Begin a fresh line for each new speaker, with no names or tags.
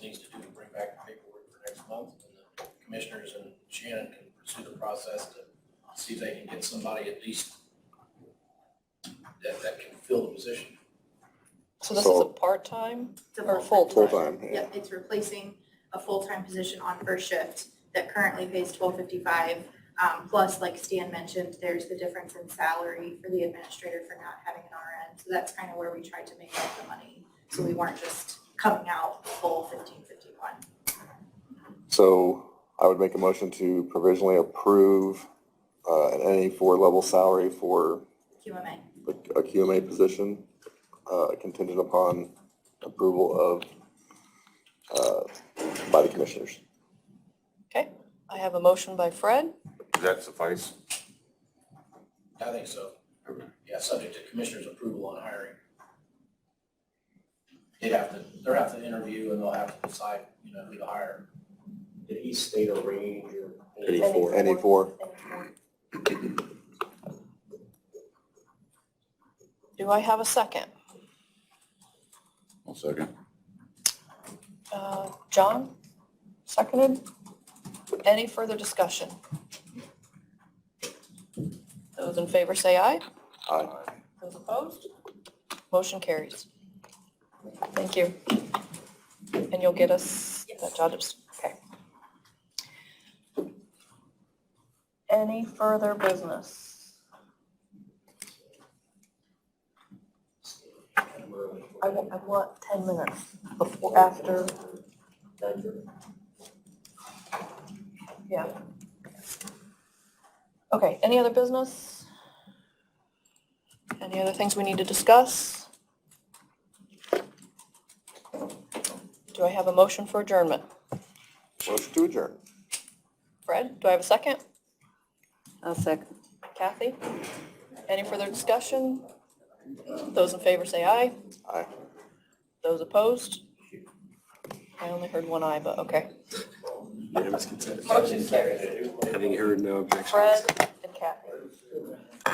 bring back the paperwork for next month, and the commissioners and Shannon can pursue the process to see if they can get somebody at least that, that can fill the position.
So this is a
So-
part-time
It's a
or
full
full-time?
time, yeah.
Yep, it's replacing a full-time position on first shift that currently pays twelve fifty-five. Um, plus, like Stan mentioned, there's the difference in salary for the administrator for not having an RN. So that's kind of where we tried to make up the money. So we weren't just coming out full fifteen fifty-one.
So I would make a motion to provisionally approve uh, an NA four level salary for
QMA,
a a QMA position uh, contingent upon approval of, uh, by the commissioners.
Okay, I have a motion by Fred.
Does that suffice?
I think so. Yeah, subject to commissioner's approval on hiring. They'd have to, they'll have to interview and they'll have to decide, you know, who to hire.
Did he state a range or?
Eighty-four.
NA four,
Do I have a second?
One second.
Uh, John, seconded. Any further discussion? Those in favor say aye.
aye.
Those opposed? Motion carries. Thank you. And you'll get us that job, des- okay. Any further business? I want, I want 10 minutes before, after, yeah. Okay, any other business? Any other things we need to discuss? Do I have a motion for adjournment?
Motion to adjourn.
Fred, do I have a second?
I'll second.
Kathy? Any further discussion? Those in favor say aye.
Aye.
Those opposed? I only heard one aye, but okay.
unanimous consent.
Motion carries.
Having heard no objection.
Fred,